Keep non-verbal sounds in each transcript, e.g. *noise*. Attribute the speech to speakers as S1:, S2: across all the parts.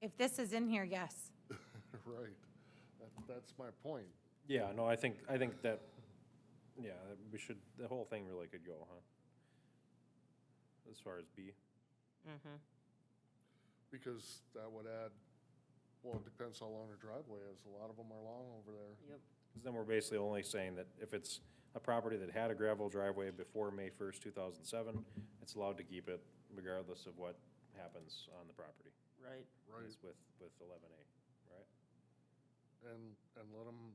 S1: If this is in here, yes.
S2: *laughs* Right. That, that's my point.
S3: Yeah, no, I think, I think that, yeah, that we should, the whole thing really could go, huh? As far as B,
S2: Because that would add, well, it depends how long the driveway is. A lot of them are long over there.
S4: Yep.
S3: because then we're basically only saying that if it's a property that had a gravel driveway before May first, two thousand seven, it's allowed to keep it regardless of what happens on the property.
S4: Right.
S2: Right.
S3: Is with, with eleven A, right?
S2: And, and let them,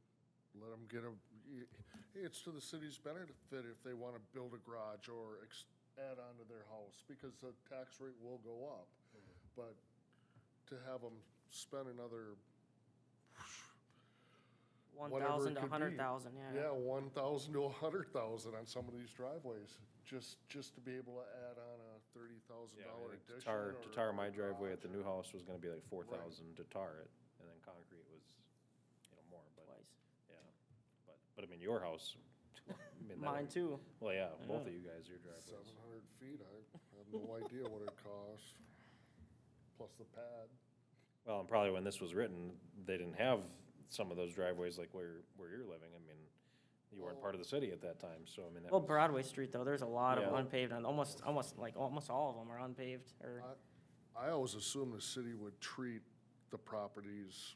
S2: let 'em get a, y- it's to the city's benefit if they want to build a garage or ex, add on to their house because the tax rate will go up. But to have them spend another,
S4: One
S2: Whatever it
S4: thousand to a
S2: could be.
S4: hundred thousand,
S2: yeah,
S4: yeah.
S2: one thousand to a hundred thousand on some of these driveways, just, just to be able to add on a thirty thousand
S3: Yeah, I
S2: dollar
S3: think to
S2: addition. or
S3: tar- To tar
S2: a
S3: my driveway at the
S2: garage or-
S3: new house was gonna be like four
S2: Right.
S3: thousand to tar it, and then concrete was, you know, more, but,
S4: Twice.
S3: yeah. But, but I mean, your house. *laughs* I mean, that
S4: Mine
S3: would-
S4: too.
S3: Well, yeah, both of
S4: Yeah.
S3: you guys, your driveways.
S2: Seven hundred feet, I have no idea what it costs, plus the pad.
S3: Well, and probably when this was written, they didn't have some of those driveways like where, where you're living. I mean, you weren't part of the city at that time, so I mean, that
S4: Well,
S3: was,
S4: Broadway Street though, there's a lot of
S3: Yeah.
S4: unpaved, on almost, almost, like, almost all of them are unpaved or,
S2: I- I always assumed the city would treat the properties